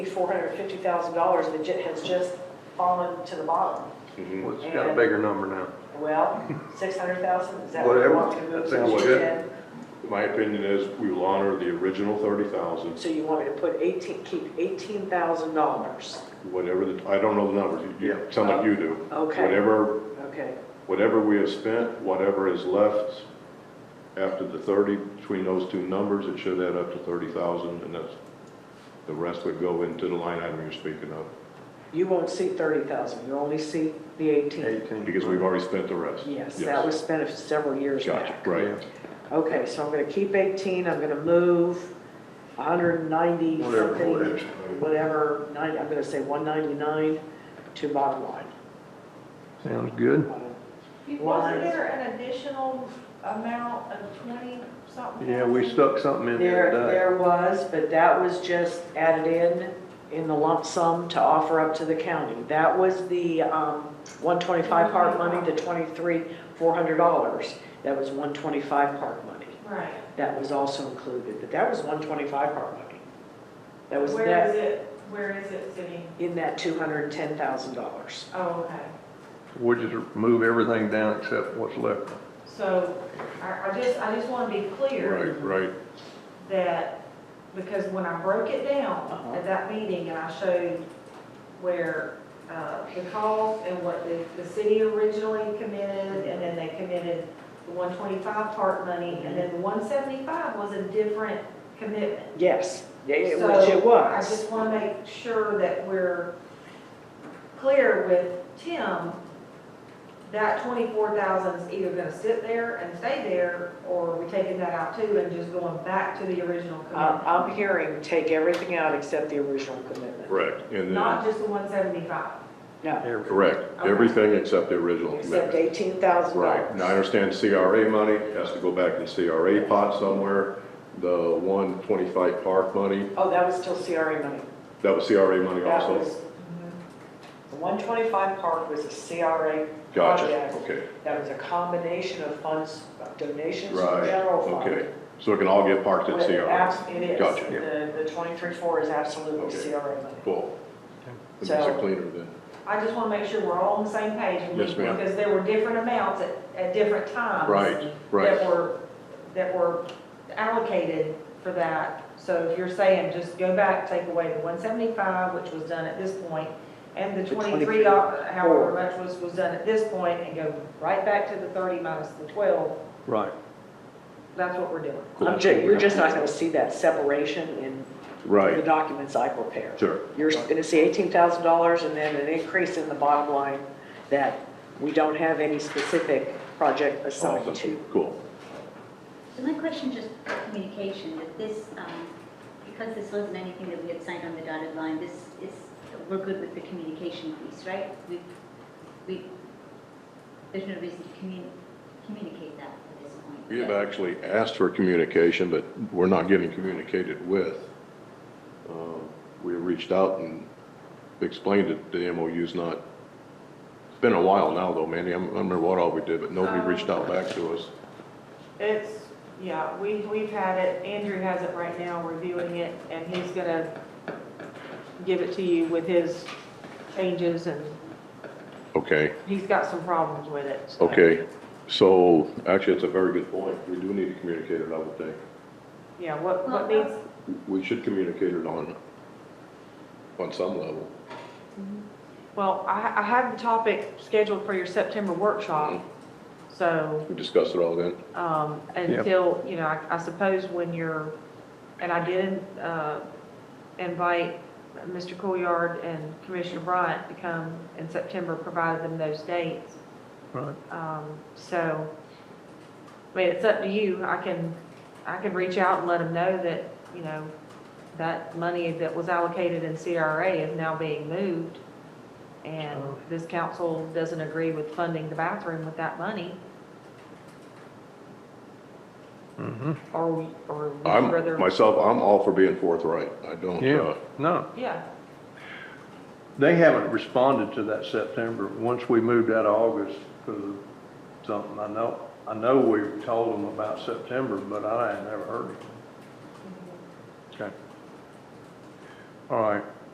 $450,000 that ju- has just fallen to the bottom. Mm-hmm. Well, It's got a bigger number now. Well, 600,000, is that what you Whatever. want to move? That to sounds 10? good. My opinion is we will honor the original thirty thousand, So you want me to put 18, keep $18,000? whatever the, I don't know the numbers, you, you Yeah. sound like you do. Oh, Okay. Whatever, Okay, whatever we have spent, whatever is left after the thirty, between those two numbers, it should add up to thirty thousand, and that's, the rest would go into the line item you're speaking of, you won't see 30,000, you only see the 18. Eighteen. because we've already spent the rest. Yes, that was spent several years Gotcha, back. right. Okay, so I'm going to keep 18, I'm going to move 190 Whatever, something, whatever. whatever, 90, I'm going to say 199 to bottom line. Sounds good. Uh, Wasn't there an additional amount of twenty something? Yeah, we stuck something in There, there today. there was, but that was just added in, in the lump sum to offer up to the county. That was the um, 125 park money, the 23, $400. That was 125 park money. Right. That was also included, but that was 125 park money. That was Where is that, it, where is it sitting? in that $210,000. Oh, okay. We'll just move everything down except what's left. So I, I just, I just want to be clear Right, right. that, because when I broke it down Uh-huh. at that meeting and I showed where uh, the cost and what the, the city originally committed, and then they committed the 125 part money, and then the 175 was a different commitment. Yes, yeah, it So, was, it I was. just want to make sure that we're clear with Tim, that twenty-four thousand is either gonna sit there and stay there, or we're taking that out too and just going back to the original I- commitment. Uh, I'm hearing take everything out except the original commitment. Correct, and Not then, just the one seventy-five. No, correct, everything except the original except commitment. $18,000. Right, now I understand CRA money has to go back in CRA pot somewhere. The one twenty-five park money, Oh, that was still CRA money. that was CRA money That also? was, the 125 park was a CRA Gotcha, project. okay, That was a combination of funds, donations from right, general fund. okay. So it can all get parked in But it CRA? abs- It is. Gotcha. The, the 23-4 is absolutely Okay. CRA money. Cool. That makes So- it cleaner then. I just want to make sure we're all on the same page. Yes, ma'am. Because there were different amounts at, at different times. um, Right, right. That were, that were allocated for that. So if you're saying, just go back, take away the one seventy-five, which was done at this point, and the The twenty-three, however much was, was done at this point, and go right back to the thirty minus the twelve, Right. that's what we're doing. Cool. I'm ju- You're just not going to see that separation in the Right, documents I prepare. sure. You're going to see $18,000 and then an increase in the bottom line that we don't have any specific project assigned to. Awesome, cool. So my question just for communication, that this, um, because this wasn't anything that we had signed on the dotted line, this is, we're good with the communication piece, right? We, we, there's no reason to commu- communicate that at this point. We have actually asked for communication, but we're not getting communicated with. Um, We have reached out and explained that the MOU's not, it's been a while now though, Mandy, I don't remember what all we did, but nobody reached out back to us. It's, yeah, we, we've had it, Andrew has it right now, reviewing it, and he's gonna give it to you with his changes, and Okay, he's got some problems with it, so. okay, so actually, it's a very good point, we do need to communicate it, I would think. Yeah, what, Well, what needs, We should communicate it on, on some level. well, I, I have the topic scheduled for your September workshop, so, We discussed it all then. um, Yeah. until, you know, I, I suppose when you're, and I did, uh, invite Mr. Coolyard and Commissioner Bryant to come in September, provided them those dates. Right. Um, so, I mean, it's up to you. I can, I can reach out and let them know that, you know, that money that was allocated in CRA is now being moved. And Sure. this council doesn't agree with funding the bathroom with that money, Mm-hmm. or, we- or would you I'm, rather. myself, I'm all for being forthright, I don't, uh, Yeah, no, Yeah, they haven't responded to that September. Once we moved out of August to something, I know, I know we told them about September, but I had never heard it. Okay. All right,